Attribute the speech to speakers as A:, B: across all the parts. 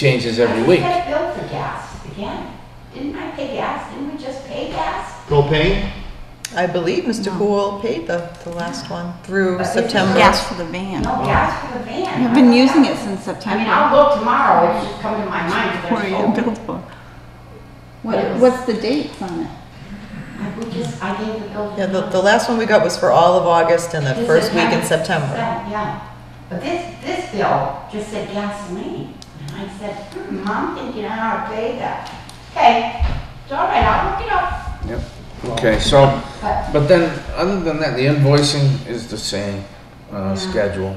A: changes every week.
B: I just got billed for gas again. Didn't I pay gas? Didn't we just pay gas?
C: Propane?
D: I believe Mr. Cool paid the, the last one through
B: But this is-
D: September.
B: Yes.
E: Gas for the
B: No
E: van.
B: gas for the van.
E: I've been using it since
B: I mean,
E: September.
B: I'll look tomorrow. It's just coming to my mind.
E: What are
B: There's
E: you
B: hope.
E: billed for? What, what's the dates on it?
B: I- We just, I gave the bill. to
D: Yeah, the,
B: them.
D: the last one we got was for all of August and the
B: This
D: first week in
B: September.
D: September.
B: Yeah, Yeah. But this, this bill just said gasoline. And I said, hmm, Mom thinking I ought to pay that. Okay, it's all right. I'll look it up.
A: Yep. Okay, so,
B: But
A: but then, other than that, the invoicing is the same, uh, schedule.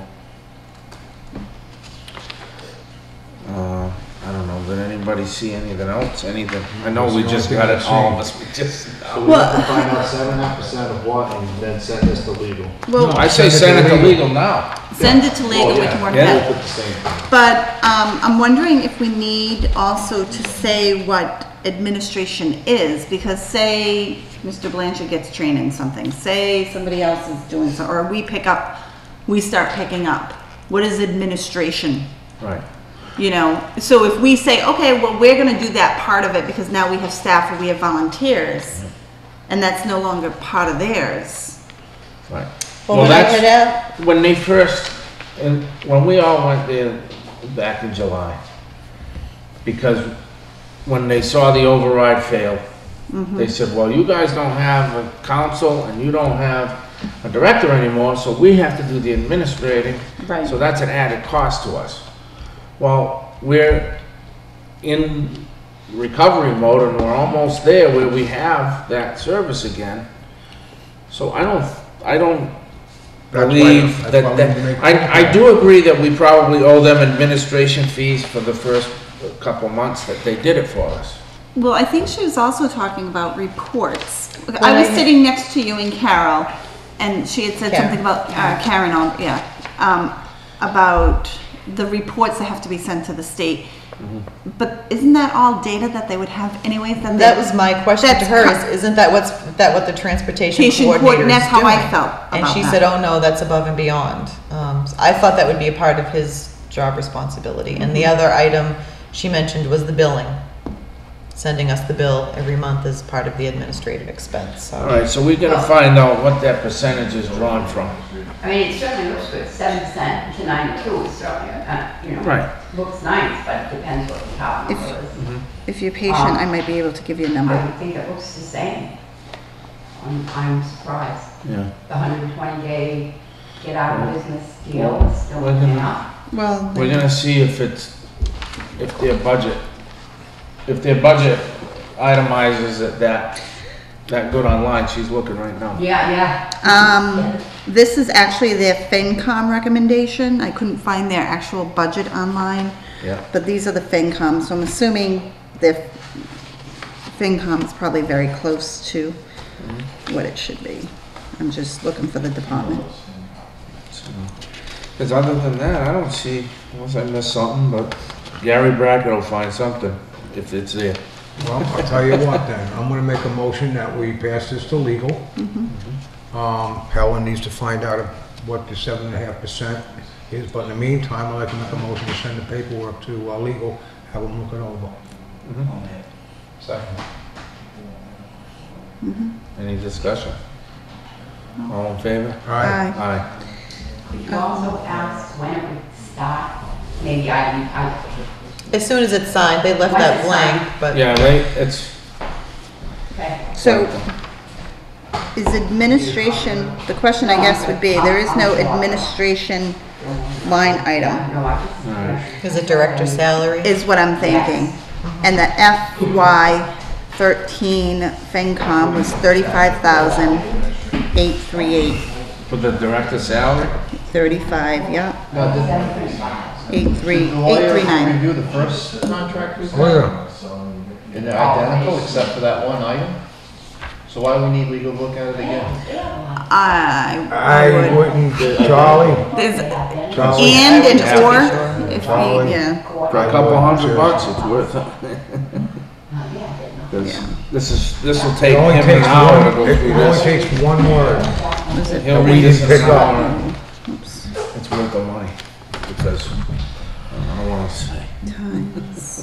A: Uh, I don't know, did anybody see anything else, anything? I know we just got it, all of us, we just.
C: So we have to find out seven and a half percent of what and then send this to legal.
A: No, I say send it to legal now.
E: Send it to legal, we
A: yeah.
E: can work
A: Yeah.
C: Both
E: that.
C: at the same time.
E: But um, I'm wondering if we need also to say what administration is, because say Mr. Blanchard gets trained in something, say somebody else is doing so, or we pick up, we start picking up. What is administration?
A: Right.
E: You know, so if we say, okay, well, we're gonna do that part of it because now we have staff or we have volunteers, and that's no longer part of theirs.
A: Right.
D: Well, when I
A: that's-
D: had out,
A: When they first, and when we all went there back in July, because when they saw the override fail, they said, well, you guys don't have a council and you don't have a director anymore, so we have to do the administrating.
E: Right.
A: So that's an added cost to us. Well, we're in recovery mode and we're almost there where we have that service again. So I don't, I don't
F: That's why-
A: believe
F: that's why
A: that,
F: we
A: that,
F: need to make-
A: I, I do agree that we probably owe them administration fees for the first couple months that they did it for us.
E: Well, I think she was also talking about reports.
D: Well,
E: I was
D: I-
E: sitting next to you and Carol, and she had said
D: Karen.
E: something about, uh, Karen, on- yeah, um, about the reports that have to be sent to the state. Mm-hmm. But isn't that all data that they would have anyways? they-
D: that was my question to
E: That's
D: her,
E: cor-
D: is, isn't that what's, that what the transportation
E: Transportation
D: coordinator
E: coordinator,
D: is
E: that's how I
D: doing?
E: felt
D: And
E: about
D: she
E: that.
D: said, oh no, that's above and beyond. Um, so I thought that would be a part of his job responsibility. And
E: Mm-hmm.
D: the other item she mentioned was the billing. Sending us the bill every month is part of the administrative expense, so.
A: All right, so we gotta find out what that percentage is drawn from.
B: I mean, it certainly looks good, seven percent to ninety-two, so, uh, you know.
A: Right.
B: Looks nice, but it depends what the top number is.
E: If you're patient, I might be able to give you a
B: I
E: number.
B: would think it looks the same. I'm, I'm surprised.
A: Yeah.
B: The hundred and twenty day get out of business deal is still
A: Well,
B: working out.
E: Well,
A: We're gonna see if it's, if their budget, if their budget itemizes it that, that good online, she's looking right now.
B: Yeah, yeah.
E: Um, this is actually their FinCom recommendation. I couldn't find their actual budget online.
A: Yeah.
E: But these are the FinCom, so I'm assuming their FinCom is probably very close to
F: Mm-hmm.
E: what it should be. I'm just looking for the department.
A: Cause other than that, I don't see, unless I missed something, but Gary Brackett will find something if it's there.
F: Well, I'll tell you what then, I'm gonna make a motion that we pass this to legal. Um, Helen needs to find out what the seven and a half percent is, but in the meantime, I'd like to make a motion to send the paperwork to uh, legal, have them look it over. Second.
A: Any discussion? All in favor?
F: All right,
E: Aye.
A: Aye.
B: Could you also ask when it would start? Maybe I, I,
D: As soon as it's signed, they left
B: Once
D: that
B: it's
D: blank, but.
A: Yeah, right, it's,
B: okay.
E: So is administration, the question I guess would be, there is no administration line item,
B: No, I just.
D: Is it director salary?
E: is what I'm thinking. And the FY thirteen FinCom was thirty-five thousand eight three eight.
A: for the director's salary?
E: 35, yeah,
G: Now, did
E: 83,
G: the lawyer
E: 839.
G: review the first contract we
F: Oh, yeah.
G: signed? And they're identical except for that one item? So why we need legal to look at it again?
E: I
F: I
E: would,
F: wouldn't, Charlie,
E: there's
F: Charlie.
E: and and
A: Oh, Yeah.
E: or, if we, yeah,
A: For a couple hundred bucks, it's worth it. 'Cause This is, this will take
F: It only
A: him an
F: takes
A: hour to
F: one,
A: go through
F: it only
A: this.
F: takes one word.
A: He'll
F: we
A: read this
F: didn't
A: in an
F: pick up.
A: hour. It's worth the money, because uh, I don't know what else to say.
E: time.